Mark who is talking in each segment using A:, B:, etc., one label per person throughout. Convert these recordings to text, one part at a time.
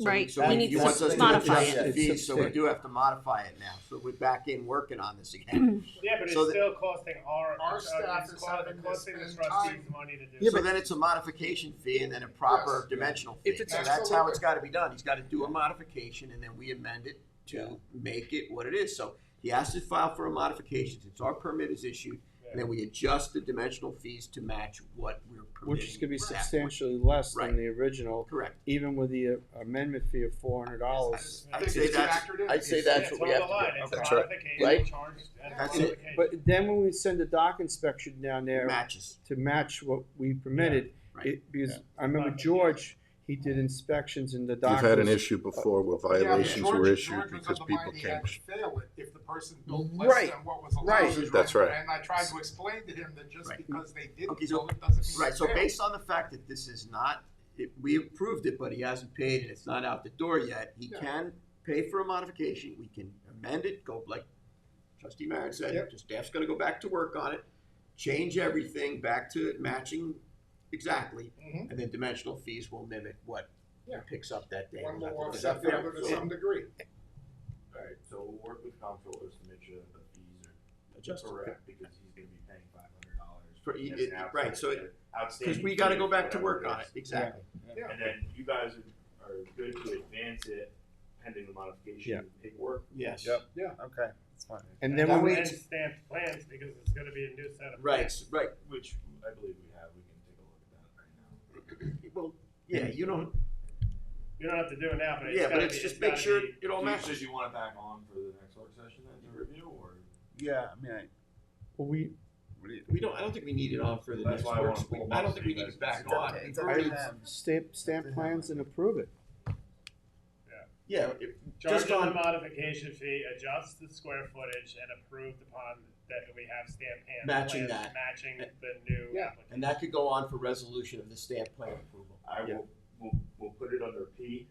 A: So-
B: Right,
A: So
B: we
A: you-
B: need
A: you
B: to
A: want us to
B: modify
A: adjust the
C: it.
A: fees, so we do have to modify it now, so we're back in working on this again.
D: Yeah, but it's
A: So the-
D: still costing our,
E: Our
D: it's, uh,
E: staff
D: it's
E: is
D: co-
E: having to
D: costing the
E: spend
D: trustees
E: time.
D: money to do.
A: Yeah,
D: it.
A: but then it's a modification fee and then a proper dimensional fee.
F: If
A: So
F: it's-
A: that's how it's gotta be done. He's gotta do a modification and then we amend it to make it what it is. So he has to file for a modification, since our permit is issued, and then we adjust the dimensional fees to match what we're permitting.
C: Which is gonna be
A: at that point.
C: substantially less
A: Right.
C: than the original,
A: Correct.
C: even with the uh, amendment fee of four hundred dollars.
E: I
A: I'd
E: think
A: say
E: it's
A: that's-
E: factored in.
A: I'd say
E: It's-
D: Yeah,
A: that's
D: it's
A: what we
D: on
A: have
D: the
A: to do.
D: line, it's
F: That's right.
D: modification,
A: Right?
D: charge, and
A: That's it.
D: modification.
C: But then when we send the dock inspection down
A: It
C: there
A: matches.
C: to match what we permitted,
A: right.
C: it, because I remember George, he did inspections in the
F: We've
C: dock.
F: had an
C: was-
F: issue before where
E: Yeah, but
F: violations
E: George-
F: were issued
E: George was
F: because
E: of the
F: people
E: mind he
F: came.
E: had to Fail it if the person built less
C: Right.
E: than what was allowed.
C: Right.
F: That's right.
E: And I tried to explain to him that just
A: Right.
E: because they
A: Okay,
E: didn't
A: so-
E: build it doesn't mean. it's
A: Right, so
E: fair.
A: based on the fact that this is not, it- we approved it, but he hasn't paid and it's not out the door yet, he
E: Yeah.
A: can pay for a modification, we can amend it, go like trustee Merritt said,
C: Yep.
A: the staff's gonna go back to work on it, change everything back to matching exactly,
E: Mhm.
A: and then dimensional fees will mimic what
E: Yeah.
A: picks up that day.
E: One will
A: Is that
E: offset the
A: fair?
E: other to some degree.
G: Alright, so we'll work with comptrollers to make sure that the fees are
A: Adjusted.
G: correct, because he's gonna be paying five hundred dollars.
A: For e- it- right, so it-
G: Outstanding.
A: Cause we gotta
G: fee,
A: go back to
G: whatever
A: work on it,
G: is.
A: exactly.
E: Yeah.
G: And then you guys are- are good to advance it pending the modification
C: Yeah.
G: of paperwork.
A: Yes.
C: Yeah.
H: Okay, that's fine.
C: And then
A: That
C: when we,
A: way-
D: And stamped plans, because it's gonna be a new set of.
A: Right,
D: plans.
A: right,
G: Which I believe we have, we can take a look at that right now.
A: well, yeah, you don't,
D: You don't have to do it now, but it's
A: yeah,
D: gotta
A: but
D: be.
A: it's just
D: gotta
A: make sure
D: be-
A: it all
G: Do you-
A: matches.
G: Did you want it back on for the next work session then to review, or?
H: Yeah, I mean, I,
C: we,
H: what do you?
A: We don't, I don't think we need it on for the
G: That's
A: next
G: why I
A: work
G: wanna
A: session.
G: pull
A: I
G: them
A: don't
G: up
A: think
G: so
A: we
G: you
A: need
G: guys
A: it back
H: can
A: on.
H: see.
A: It's
H: It's up
A: already-
H: to them.
C: stamp, stamp plans and approve it.
A: Yeah, it-
D: Charge
A: just
D: on the
A: on
D: modification fee, adjust the square footage and approved upon that we have stamped hand.
A: Matching
D: plans
A: that.
D: Matching the new.
E: Yeah.
D: application.
A: and that could go on for resolution of the stamp plan approval.
G: I
C: Yeah.
G: will, we'll, we'll put it under P.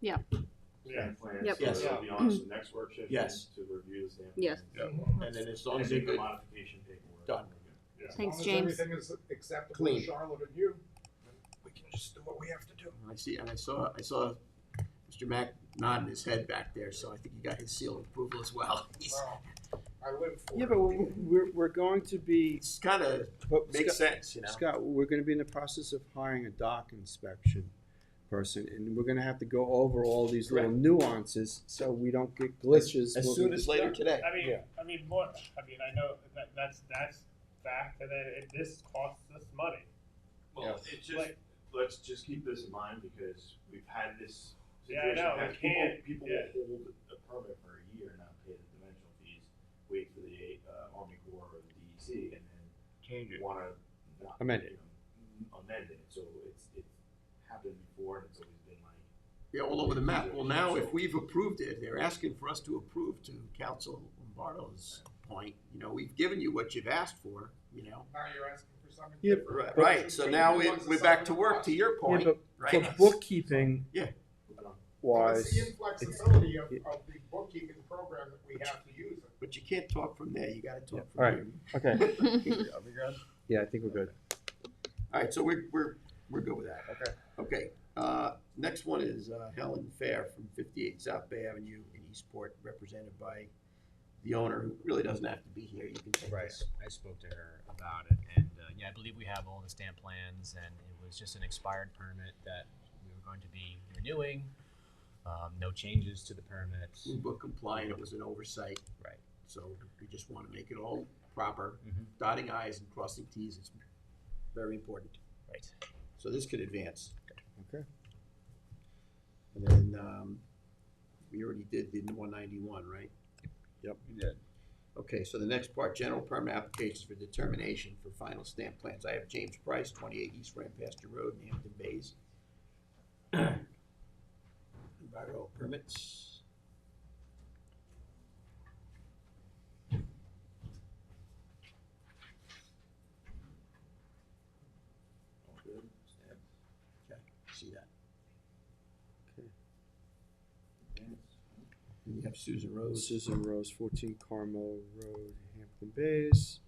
B: Yeah.
D: Yeah.
G: Stamp plans,
B: Yep.
G: so
A: Yes.
G: it'll be on to the next work session
A: Yes.
G: to review the stamp.
B: Yes.
G: plans.
A: And then as long
G: And
A: as they
G: make the
A: could,
G: modification paperwork.
A: Done.
G: We're good.
E: As
B: Thanks,
E: long as
B: James.
E: Everything is acceptable to
A: Clean.
E: Charlotte and you, we can just do what we have to do.
A: I see, and I saw, I saw Mr. Mack nodding his head back there, so I think he got his seal of approval as well. He's,
E: Wow. I live for it.
C: Yeah, but we're, we're- we're going to be,
A: it's kinda
C: but
A: makes
C: Scott,
A: sense, you know?
C: Scott, we're gonna be in the process of hiring a dock inspection person, and we're gonna have to go over all these little nuances, so we don't get glitches.
A: As
C: when
A: soon
C: we-
A: as later today.
D: I mean,
C: Yeah.
D: I mean, more. I mean, I know that that's that's fact, and then it, this costs us money.
G: Well, it's just,
D: Like-
G: let's just keep this in mind because we've had this
D: Yeah, I
G: situation.
D: know,
G: where
D: we
G: People,
D: can't-
G: people
D: yeah.
G: will hold a permit for a year and not pay the dimensional fees, wait for the, uh, Army Corps or the DEC and then
H: Change it.
G: wanna not.
C: Amend it.
G: you know, m- Amend it, so it's, it's happened before and it's always been like,
A: Yeah, all over the map. Well, now, if we've approved it, they're asking for us to approve to Council Lombardo's point, you know, we've given you what you've asked for, you know?
E: Now you're asking for something.
C: Yeah,
E: different.
A: Right, Right, so now we, we're back to work, to your
C: Yeah,
A: point,
C: but for
A: right?
C: bookkeeping
E: Well, it's
C: wise,
E: the inflexibility of, of the bookkeeping program that we have to use.
A: But you can't talk from there, you gotta talk
C: all
A: from
C: right.
A: here.
C: okay,
H: Are we good?
C: yeah, I think we're good.
A: All right, so we're, we're, we're good with that.
H: Okay.
A: Okay, uh, next one is uh, Helen Fair from fifty-eight South Bay Avenue in Eastport, represented by the owner, who really doesn't have to be here, you can take
I: Right.
A: this.
I: I spoke to her about it, and uh, yeah, I believe we have all the stamp plans, and it was just an expired permit that we were going to be renewing. Um, no changes to the permit.
A: Blue Book compliant, it was an oversight.
I: Right.
A: So we just wanna make it all proper,
I: Mhm.
A: dotting i's and crossing t's is very important.
I: Right.
A: So this could advance.
C: Okay.
A: And then, um, we already did the one ninety-one, right?
H: We did.
A: Okay, so the next part, general permit applications for determination for final stamp plans. I have James Price, twenty-eight East Ranpaster Road, in Hampton Bays. Environmental permits.
G: all good, stamp,
A: Okay, see that.
G: plans.
A: And you have Susan Rose.
C: Susan Rose, fourteen Carmel Road, Hampton Bays.